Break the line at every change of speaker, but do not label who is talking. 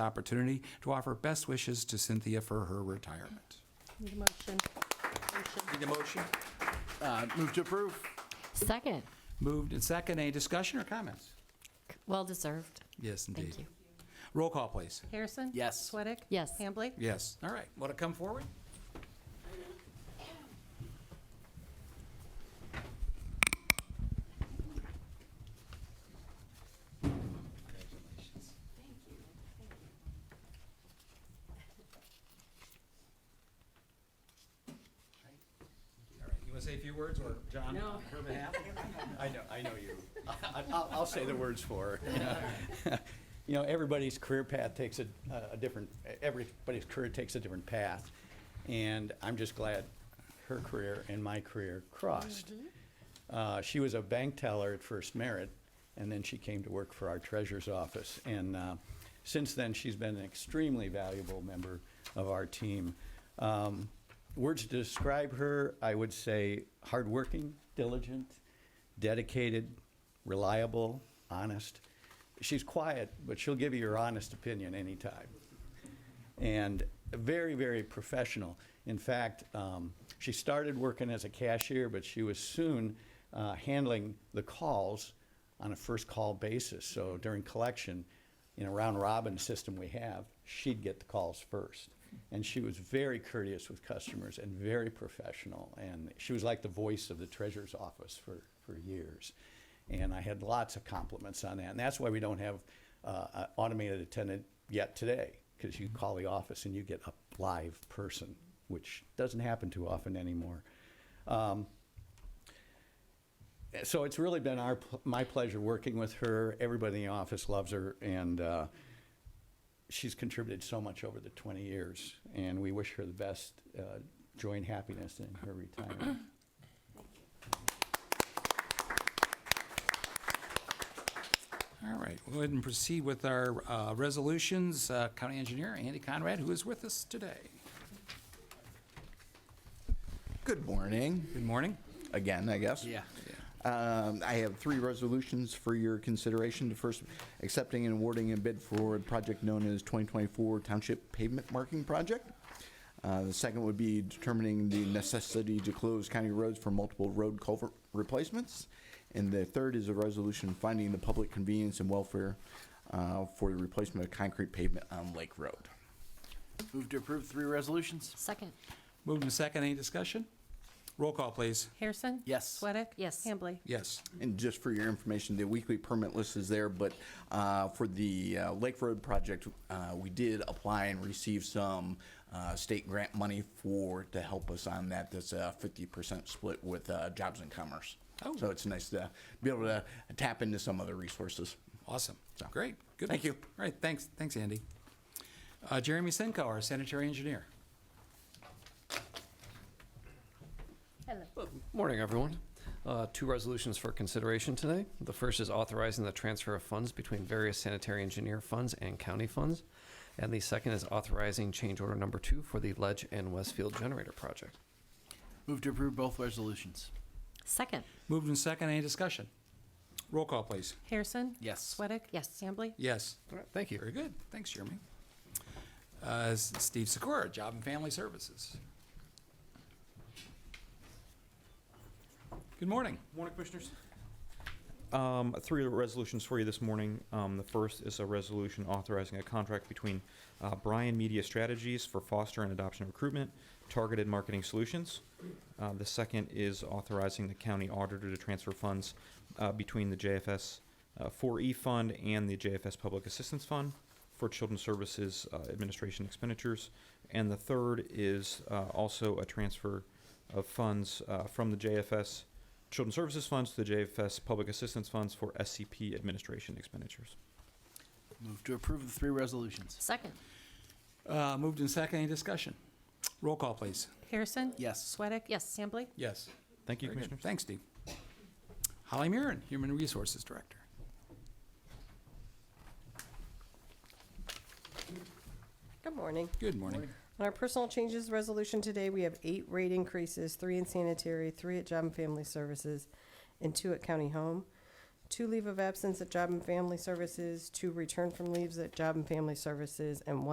the opportunity to offer best wishes to Cynthia for her retirement.
Need a motion. Motion.
Need a motion? Uh, Move to approve.
Second.
Moved and second. Any discussion or comments?
Well deserved.
Yes, indeed.
Thank you.
Roll call, please.
Harrison?
Yes.
Sweattick?
Yes.
Hambley?
Yes. All right. Want to come forward? All right. You want to say a few words, or John? No.
I know, I know you. I- I'll, I'll say the words for her. You know, everybody's career path takes a, a different, e, everybody's career takes a different path. And I'm just glad her career and my career crossed. Uh, she was a bank teller at First Merit, and then she came to work for our treasurer's office. And uh, since then, she's been an extremely valuable member of our team. Um, words to describe her, I would say hardworking, diligent, dedicated, reliable, honest. She's quiet, but she'll give you your honest opinion anytime. And very, very professional. In fact, um, she started working as a cashier, but she was soon uh, handling the calls on a first call basis. So during collection, in a round robin system we have, she'd get the calls first. And she was very courteous with customers and very professional. And she was like the voice of the treasurer's office for, for years. And I had lots of compliments on that. And that's why we don't have uh, an automated attendant yet today, because you call the office and you get a live person, which doesn't happen too often anymore. Um, so it's really been our pl- my pleasure working with her. Everybody in the office loves her, and uh, she's contributed so much over the 20 years. And we wish her the best uh, joy and happiness in her retirement.
All right, we'll go ahead and proceed with our uh, resolutions. Uh, County Engineer Andy Conrad, who is with us today.
Good morning,
Good morning.
again, I guess. Um, I have three resolutions for your consideration. The first, accepting and awarding a bid for a project known as 2024 Township Pavement Marking Project. Uh, The second would be determining the necessity to close county roads for multiple road culvert replacements. And the third is a resolution finding the public convenience and welfare uh, for the replacement of concrete pavement on Lake Road.
Move to approve three resolutions?
Second.
Moved and second, any discussion? Roll call, please.
Harrison?
Yes.
Sweattick?
Yes.
Hambley?
Yes.
And just for your information, the weekly permit list is there, but uh, for the uh, Lake Road project, uh, we did apply and receive some uh, state grant money for, to help us on that. That's a 50% split with uh, Jobs and Commerce.
Oh.
So it's nice to be able to tap into some other resources.
Awesome, great, good.
Thank you.
All right, thanks, thanks, Andy. Uh, Jeremy Senko, our sanitary engineer.
Hello.
Morning, everyone. Uh, Two resolutions for consideration today. The first is authorizing the transfer of funds between various sanitary engineer funds and county funds. And the second is authorizing change order number two for the Ledge and Westfield Generator Project.
Move to approve both resolutions.
Second.
Moved and second, any discussion? Roll call, please.
Harrison?
Yes.
Sweattick?
Yes.
Hambley?
Yes.
All right, thank you.
Very good, thanks, Jeremy. Uh, Steve Sikora, Job and Family Services. Good morning.
Morning, Commissioners. Um, Three resolutions for you this morning. Um, The first is a resolution authorizing a contract between uh, Bryan Media Strategies for foster and adoption recruitment, targeted marketing solutions. Uh, The second is authorizing the county auditor to transfer funds uh, between the JFS uh, 4E Fund and the JFS Public Assistance Fund for Children's Services uh, Administration expenditures. And the third is uh, also a transfer of funds uh, from the JFS Children's Services Funds to the JFS Public Assistance Funds for SCP administration expenditures.
Move to approve the three resolutions.
Second.
Uh, Moved and second, any discussion? Roll call, please.
Harrison?
Yes.
Sweattick?
Yes.
Hambley?
Yes.
Thank you,
Very good.
Commissioners.
Thanks, Steve. Holly Murin, Human Resources Director.
Good morning.
Good morning.
On our personal changes resolution today, we have eight rate increases, three in sanitary, three at Job and Family Services, and two at County Home. two leave of absence at Job and Family Services, two return from leaves at Job and Family Services, and one